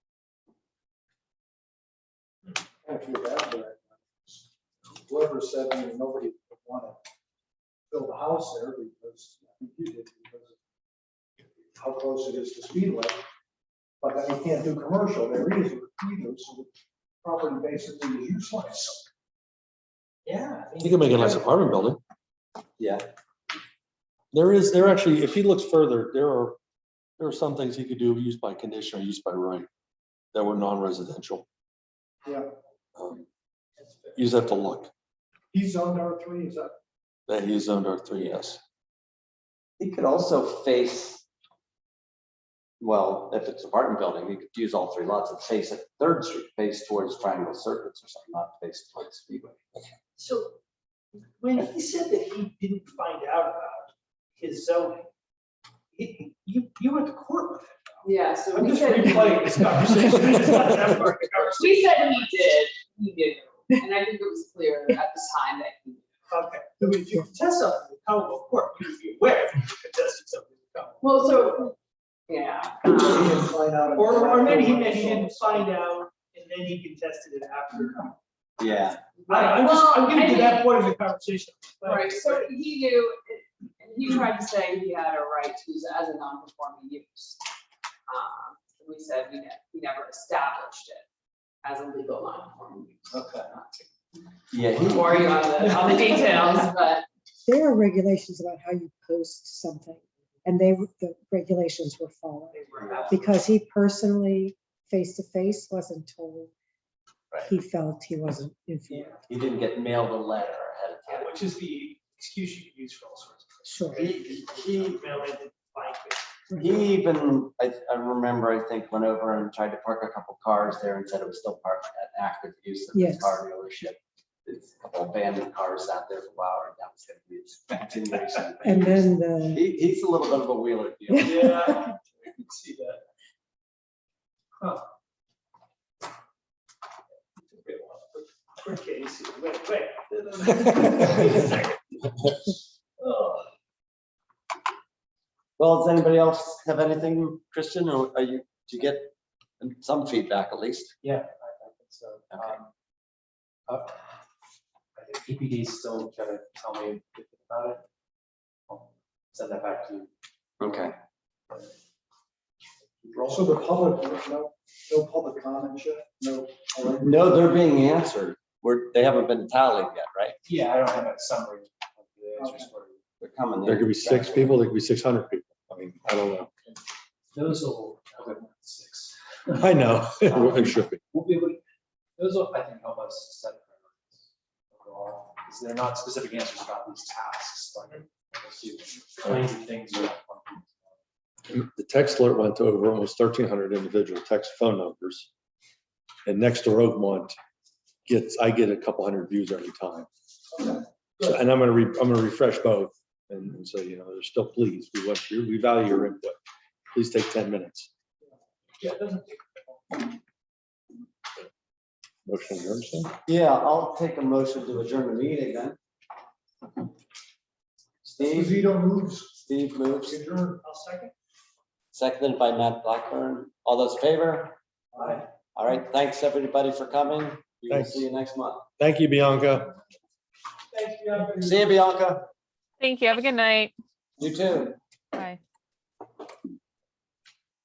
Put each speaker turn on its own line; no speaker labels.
country of Asbury. Whoever said, you know, nobody would want to build a house there because, I think you did, because of how close it is to Speedway. But then you can't do commercial there either, either, so the property basically is useless.
Yeah. I mean,
You can make it nice apartment building.
Yeah.
There is, there actually, if he looks further, there are, there are some things he could do, used by condition or used by right, that were non-residential.
Yeah.
Um,
that's fair.
You just have to look,
He's on R three, is that?
that he is zoned R three, yes.
It could also face, well, if it's apartment building, you could use all three lots and face it Third Street, face towards Triangle Circuits or something, not face towards Speedway.
So when he said that he didn't find out about his zoning, he, you, you went to court with him.
Yeah, so
I'm
we
just
said,
replaying this conversation. It's not that part of the conversation.
we said we did, we knew, and I think it was clear at the time that he.
Okay, so if you contest something in the Commonwealth Court, you'd be aware if you contested something in the Commonwealth.
Well, so, yeah.
He
um,
didn't find out.
Or, or maybe he meant he didn't find out and then he contested it after.
Yeah,
I don't know, I'm just, I'm getting to
Well, I
that point of the conversation. Like,
Right, so he knew, and he tried to say he had a right to use it as a non-conforming use. Um, We said we ne- we never established it as a legal non-conforming use.
Okay.
Not to
yeah, he-
Bore you on the, on the details, but
there are regulations about how you post something, and they, the regulations were followed.
they were out.
Because he personally, face to face, wasn't told.
Right.
He felt he wasn't informed,
he didn't get mailed a letter ahead of
Yeah,
time.
Which is the excuse you can use for all sorts of
sure.
He,
things.
he
Mail it, like,
He even, I, I remember, I think, went over and tried to park a couple cars there and said it was still parked at active use of the
Yes.
car dealership. It's a couple abandoned cars out there for a while, and that was gonna be its continuation.
And then the,
He, he's a little bit of a wheeler dealer.
Yeah, I can I can see that. Huh. Wait, wait, wait, wait. Wait a second. Oh,
Well, does anybody else have anything, Christian, or are you, do you get some feedback at least?
Yeah, I I think so. Um, uh, I think EPD is still trying to tell me about it. I'll Send that back to you.
Okay.
Also, the public, no, no public comment yet, no.
No, they're being answered. We're, they haven't been tallied yet, right?
Yeah, I don't have a summary of the answers for you.
They're coming.
There could be six people, there could be six hundred people. I mean, I don't know.
Those will, okay, six.
I know, it should be.
We'll be able, to- those will, I think, help us set priorities overall, because they're not specific answers about these tasks, like, we'll see kinds of things. are-
The text alert went to over almost thirteen hundred individual text phone numbers. And next to Rogemont gets, I get a couple hundred views every time. So- And I'm gonna re, I'm gonna refresh both and and say, you know, they're still pleased. We want you, we value your input. Please take ten minutes.
Yeah, it doesn't take
Motion adjourned, sir.
Yeah, I'll take a motion to adjourn the meeting then. Steve,
Zito moves,
Steve moves,
adjourn.
I'll second.
seconded by Matt Blackburn. All those in favor?
Aye.
All right, thanks everybody for coming. We will
Thanks.
see you next month.
Thank you, Bianca.
Thank you. everybody.
See you, Bianca.
Thank you. Have a good night.
You too.